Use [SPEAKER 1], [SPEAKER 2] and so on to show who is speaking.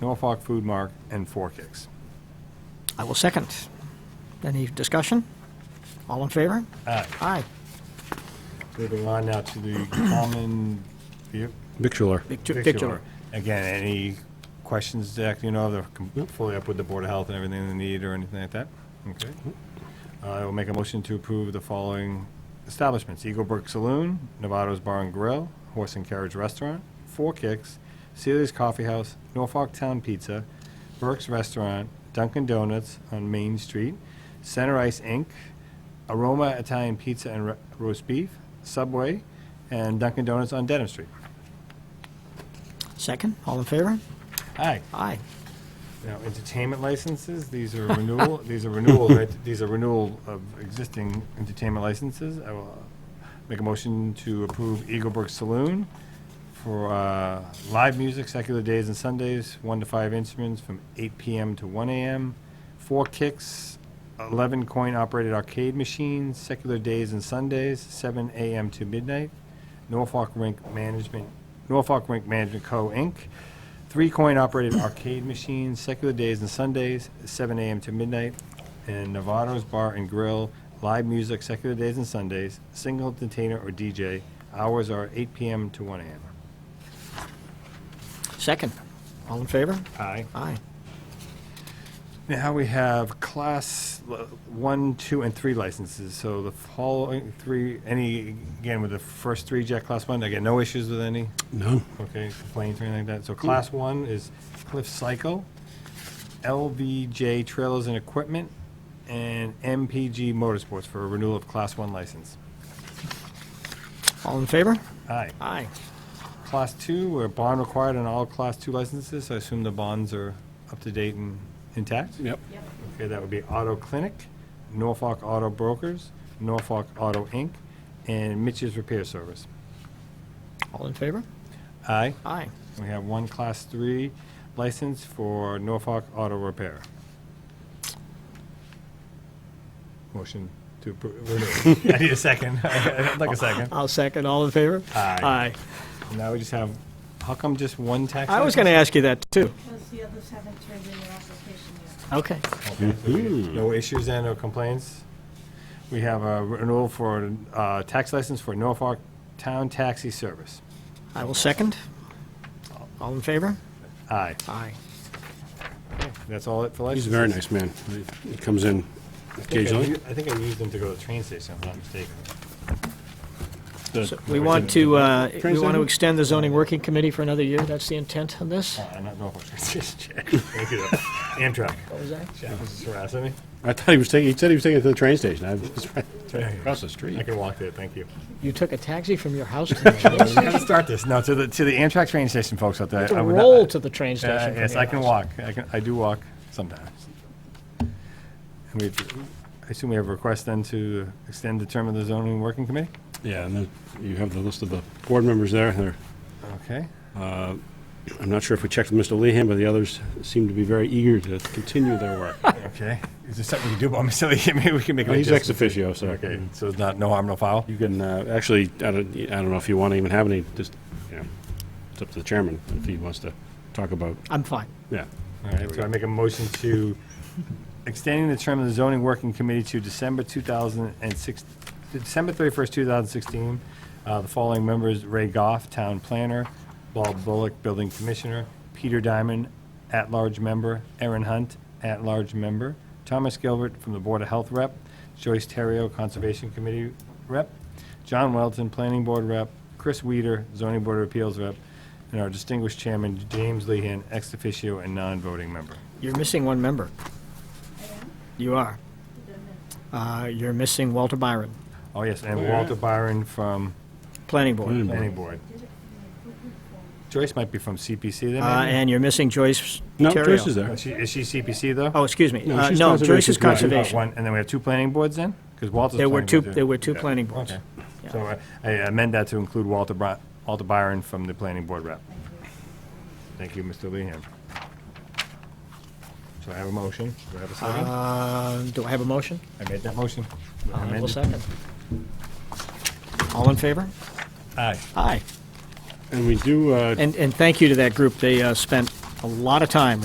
[SPEAKER 1] Norfolk Food Mark, and Four Kicks.
[SPEAKER 2] I will second. Any discussion? All in favor?
[SPEAKER 1] Aye.
[SPEAKER 2] Aye.
[SPEAKER 1] Moving on now to the common vehic-
[SPEAKER 3] Victular.
[SPEAKER 2] Victu-
[SPEAKER 1] victular.
[SPEAKER 2] Victular.
[SPEAKER 1] Again, any questions, Zach, you know, they're com- fully up with the Board of Health and everything they need or anything like that? Okay. Uh, I will make a motion to approve the following establishments. Eagle Brook Saloon, Novato's Bar and Grill, Horse and Carriage Restaurant, Four Kicks, Celia's Coffee House, Norfolk Town Pizza, Burke's Restaurant, Dunkin' Donuts on Main Street, Center Ice Inc., Aroma Italian Pizza and Ro- Roast Beef, Subway, and Dunkin' Donuts on Dedham Street.
[SPEAKER 2] Second, all in favor?
[SPEAKER 1] Aye.
[SPEAKER 2] Aye.
[SPEAKER 1] Now, entertainment licenses, these are renewal, these are renewal, right, these are renewal of existing entertainment licenses. I will uh, make a motion to approve Eagle Brook Saloon for uh, live music, secular days and Sundays, one to five instruments from eight PM to one AM, four kicks, eleven coin-operated arcade machines, secular days and Sundays, seven AM to midnight, Norfolk Rink Management, Norfolk Rink Management Co., Inc., Three coin-operated arcade machines, secular days and Sundays, 7 a.m. to midnight, and Novato's Bar and Grill, live music, secular days and Sundays, single entertainer or DJ. Hours are 8 p.m. to 1 a.m.
[SPEAKER 2] Second, all in favor?
[SPEAKER 1] Aye.
[SPEAKER 2] Aye.
[SPEAKER 1] Now we have class l- one, two, and three licenses. So the following three, any, again, with the first three, Jack, class one, again, no issues with any?
[SPEAKER 3] No.
[SPEAKER 1] Okay, complaints or anything like that. So class one is Cliff Cycle, LVJ Trailers and Equipment, and MPG Motorsports for a renewal of class one license.
[SPEAKER 2] All in favor?
[SPEAKER 1] Aye.
[SPEAKER 2] Aye.
[SPEAKER 1] Class two, where bond required on all class two licenses, so I assume the bonds are up to date and intact?
[SPEAKER 3] Yep.
[SPEAKER 1] Okay, that would be Auto Clinic, Norfolk Auto Brokers, Norfolk Auto Inc., and Mitch's Repair Service.
[SPEAKER 2] All in favor?
[SPEAKER 1] Aye.
[SPEAKER 2] Aye.
[SPEAKER 1] We have one class three license for Norfolk Auto Repair. Motion to approve. I need a second. I'd like a second.
[SPEAKER 2] I'll second, all in favor?
[SPEAKER 1] Aye. Now we just have, how come just one tax?
[SPEAKER 2] I was going to ask you that, too.
[SPEAKER 4] Because the others haven't turned in their application yet.
[SPEAKER 2] Okay.
[SPEAKER 1] license? Okay, so we-
[SPEAKER 3] Hmm.
[SPEAKER 1] No issues and no complaints? We have a renewal for uh, tax license for Norfolk Town Taxi Service.
[SPEAKER 2] I will second. All in favor?
[SPEAKER 1] Aye.
[SPEAKER 2] Aye.
[SPEAKER 1] That's all it for licenses?
[SPEAKER 3] He's a very nice man. He comes in occasionally.
[SPEAKER 1] I think I used them to go to the train station, if I'm not mistaken.
[SPEAKER 2] So We want to, uh, we want to
[SPEAKER 3] President?
[SPEAKER 2] extend the zoning working committee for another year. That's the intent on this?
[SPEAKER 1] Uh, not Norfolk, just Jack. Thank you, though. Amtrak.
[SPEAKER 2] What was that?
[SPEAKER 1] Jack was just harassing me.
[SPEAKER 3] I thought he was taking, he said he was taking it to the train station. I was right across the
[SPEAKER 1] I
[SPEAKER 3] street.
[SPEAKER 1] can walk there, thank you.
[SPEAKER 2] You took a taxi from your house to
[SPEAKER 1] How to start this? No, to the, to the Amtrak train station, folks, out there.
[SPEAKER 2] to
[SPEAKER 1] I would not-
[SPEAKER 2] roll to the train station.
[SPEAKER 1] Uh,
[SPEAKER 2] from
[SPEAKER 1] Yes,
[SPEAKER 2] your
[SPEAKER 1] I can
[SPEAKER 2] house.
[SPEAKER 1] walk. I can, I do walk sometimes. And we, I assume we have a request then to extend the term of the zoning working committee?
[SPEAKER 3] Yeah, and then you have the list of the board members there. They're-
[SPEAKER 1] Okay.
[SPEAKER 3] I'm not sure if we checked with Mr. Lehan, but the others seem to be very eager to continue their work.
[SPEAKER 1] Okay. Is there something we can do about Mr. Lee? Maybe we can make an
[SPEAKER 3] He's ex
[SPEAKER 1] adjustment.
[SPEAKER 3] officio, so.
[SPEAKER 1] Okay, so it's not, no harm, no foul?
[SPEAKER 3] You can, uh, actually, I don't, I don't know if you want to even have any, just, you know, it's up to the chairman if he wants to talk about,
[SPEAKER 2] I'm fine.
[SPEAKER 3] yeah.
[SPEAKER 1] All right, so I make a motion to extending the term of the zoning working committee to December 2006, December 31st, 2016. Uh, The following members, Ray Goff, Town Planner, Bob Bullock, Building Commissioner, Peter Diamond, At-Large Member, Aaron Hunt, At-Large Member, Thomas Gilbert from the Board of Health Rep, Joyce Terrio, Conservation Committee Rep, John Welton, Planning Board Rep, Chris Weider, Zoning Board of Appeals Rep, and our distinguished chairman, James Lehan, ex officio and non-voting member.
[SPEAKER 2] You're missing one member. You are. Uh, You're missing Walter Byron,
[SPEAKER 1] Oh, yes,
[SPEAKER 3] Oh,
[SPEAKER 1] and
[SPEAKER 3] yeah.
[SPEAKER 1] Walter Byron from
[SPEAKER 2] Planning
[SPEAKER 3] Planning
[SPEAKER 2] Board.
[SPEAKER 3] Board.
[SPEAKER 1] Planning Board. Joyce might be from CPC then,
[SPEAKER 2] Uh,
[SPEAKER 1] maybe?
[SPEAKER 2] And you're missing Joyce
[SPEAKER 3] No,
[SPEAKER 2] Terrio.
[SPEAKER 3] Joyce is there.
[SPEAKER 1] Is she- Is she CPC, though?
[SPEAKER 2] Oh, excuse me.
[SPEAKER 3] No,
[SPEAKER 2] Uh,
[SPEAKER 3] she's
[SPEAKER 2] No, Joyce is
[SPEAKER 3] Conservation Committee.
[SPEAKER 2] Conservation.
[SPEAKER 1] One- And then we have two planning boards then? Because Walter's.
[SPEAKER 2] There were
[SPEAKER 1] planning
[SPEAKER 2] two-
[SPEAKER 1] board, too.
[SPEAKER 2] there were two
[SPEAKER 1] Yeah.
[SPEAKER 2] planning boards.
[SPEAKER 1] Okay.
[SPEAKER 2] Yeah.
[SPEAKER 1] So uh, I amend that to include Walter Bry, Walter Byron from the planning board rep. Thank you, Mr. Lehan. So I have a motion. Do I have a second?
[SPEAKER 2] Uh, Do I have a motion?
[SPEAKER 1] I made that motion.
[SPEAKER 2] I will
[SPEAKER 1] Amended.
[SPEAKER 2] second. All in favor?
[SPEAKER 1] Aye.
[SPEAKER 2] Aye.
[SPEAKER 3] And we do, uh,
[SPEAKER 2] And, and thank you to that group. They uh, spent a lot of time